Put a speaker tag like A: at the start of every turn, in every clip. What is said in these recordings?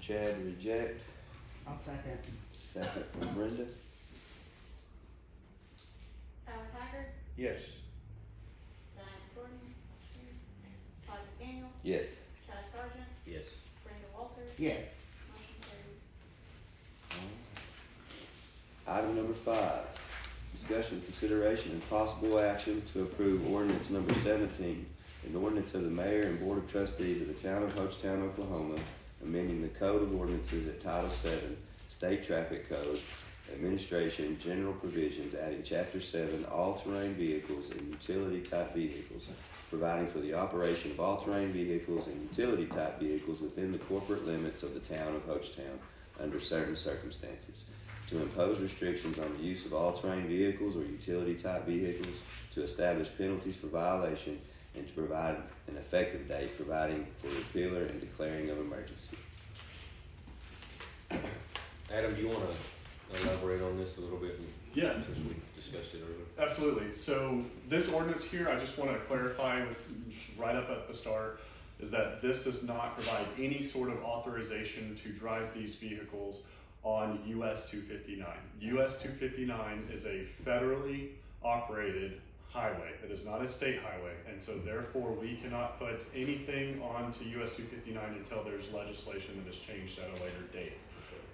A: Chad reject,
B: I'll second.
A: second from Brenda.
C: Howard Haggard,
D: Yes.
C: Diane Jordan, Todd McDaniel,
A: Yes.
C: Chad Sargent,
D: Yes.
C: Brenda Walters,
B: Yes.
C: motion carries.
A: Item number five, discussion, consideration, and possible action to approve ordinance number seventeen, an ordinance of the mayor and board of trustees of the town of Hochtown, Oklahoma, amending the code of ordinances at Title VII, State Traffic Code, Administration, General Provisions, adding Chapter Seven, all-terrain vehicles and utility-type vehicles, providing for the operation of all-terrain vehicles and utility-type vehicles within the corporate limits of the town of Hochtown under certain circumstances to impose restrictions on the use of all-terrain vehicles or utility-type vehicles, to establish penalties for violation, and to provide an effective date, providing for repealer and declaring of emergency.
D: Adam, do you wanna elaborate on this a little bit,
E: Yeah,
D: since we discussed it earlier?
E: absolutely. So this ordinance here, I just want to clarify with, just right up at the start, is that this does not provide any sort of authorization to drive these vehicles on US two fifty nine. US two fifty nine is a federally operated highway. It is not a state highway, and so therefore we cannot put anything onto US two fifty nine until there's legislation that is changed at a later date.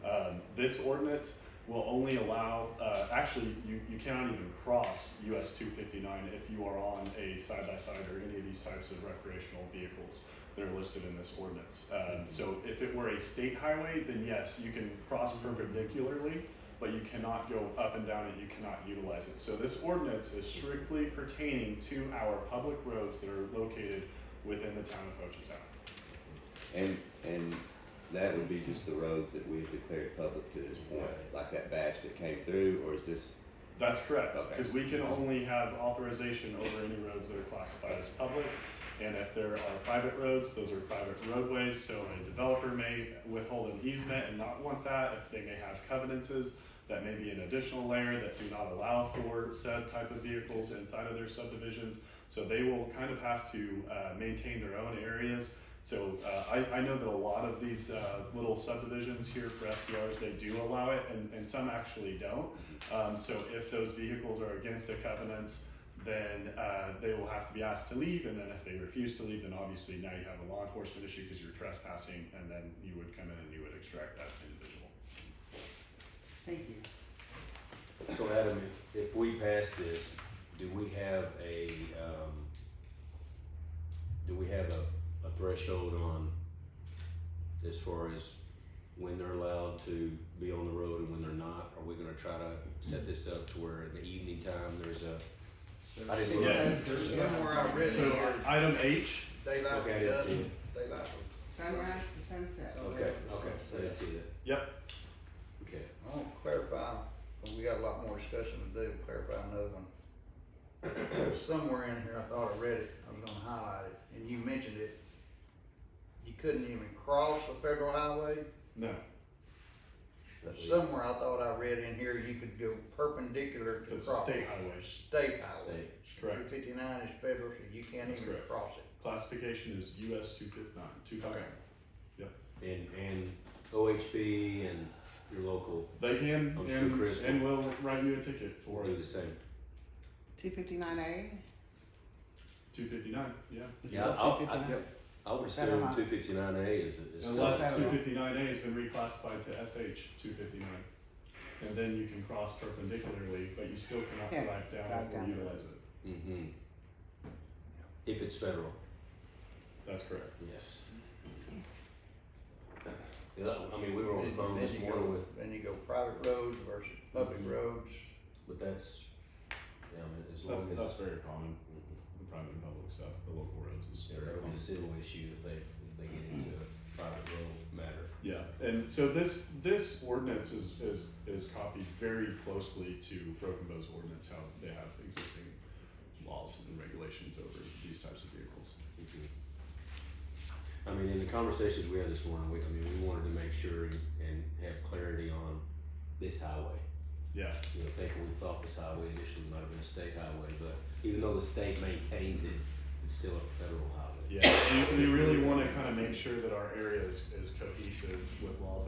E: Um, this ordinance will only allow, uh, actually, you, you cannot even cross US two fifty-nine if you are on a side-by-side or any of these types of recreational vehicles that are listed in this ordinance. Um, so if it were a state highway, then yes, you can cross perpendicularly, but you cannot go up and down it, you cannot utilize it. So this ordinance is strictly pertaining to our public roads that are located within the town of Ochetown.
A: And, and that would be just the roads that we've declared public to this point, like that batch that came through, or is this,
E: That's correct,
A: Okay.
E: because we can only have authorization over any roads that are classified as public. And if there are private roads, those are private roadways, so a developer may withhold an easement and not want that. If they may have covenances, that may be an additional layer that do not allow for said type of vehicles inside of their subdivisions. So they will kind of have to uh, maintain their own areas so uh, I, I know that a lot of these uh, little subdivisions here for STRs, they do allow it, and, and some actually don't. Um, so if those vehicles are against the covenants, then uh, they will have to be asked to leave, and then if they refuse to leave, then obviously now you have a law enforcement issue because you're trespassing, and then you would come in and you would extract that individual.
B: Thank you.
D: So Adam, if, if we pass this, do we have a, um, do we have a, a threshold on as far as when they're allowed to be on the road and when they're not? Are we gonna try to set this up to where in the evening time, there's a, I didn't look.
E: Yes.
F: There's somewhere I read
E: So
F: it,
E: item H,
F: daylight
D: Okay, I
F: to
D: didn't see
F: dusk,
D: it.
F: daylight to
B: Sunrise to sunset.
D: Okay, okay, I didn't see that.
E: Yep.
D: Okay.
F: I want to clarify, but we got a lot more discussion to do, clarify another one. There's Somewhere in here, I thought I read it, I was gonna highlight it, and you mentioned it. You couldn't even cross the federal highway,
E: no,
F: but somewhere I thought I read in here, you could go perpendicular
E: if
F: to
E: it's a
F: cross.
E: state highway,
F: State highway.
D: State.
E: correct.
F: Two fifty-nine is federal, so you can't
E: That's
F: even
E: correct.
F: cross it.
E: Classification is US two fifty-nine, two fifty-nine.
D: And, and OHB and your local
E: They can
D: I'm sure
E: and,
D: Chris
E: and will write you a ticket
D: will
E: for
D: do
E: it.
D: the same.
B: Two fifty-nine A?
E: Two fifty nine, yeah.
D: Yeah, I'll-
B: Two fifty-nine?
D: I would
B: Is that a
D: assume
B: lot?
D: two fifty-nine A is, is.
E: Unless
B: That's
E: two
B: federal.
E: fifty nine A has been reclassified to SH two fifty nine. And then you can cross perpendicularly, but you still cannot
B: Yeah,
E: drive down
B: drive
E: or
B: down.
E: utilize it.
D: Mm-hmm. If it's federal,
E: That's correct.
D: yes. Yeah, I mean, we were on the
F: Then-
D: phone
F: then
D: this
F: you go-
D: morning with,
F: Then you go private roads versus public
D: Mhm.
F: roads.
D: but that's, yeah, I mean, as long
E: That's
D: as.
E: that's very common,
D: Mhm.
E: the private and public stuff, the local roads is
D: Yeah,
E: very
D: It'll be a
E: common.
D: civil issue if they, if they get into a private road matter.
E: Yeah, and so this this ordinance is is is copied very closely to Broken Bow's ordinance, how they have existing laws and regulations over these types of vehicles.
D: Mhm. I mean, in the conversations we had this morning, we, I mean, we wanted to make sure and- and have clarity on this highway.
E: Yeah,
D: You know, thinking we thought this highway initially might have been a state highway, but even though the state maintains it, it's still a federal highway.
E: Yeah, you, you really wanna kinda make sure that our area is, is cohesive with laws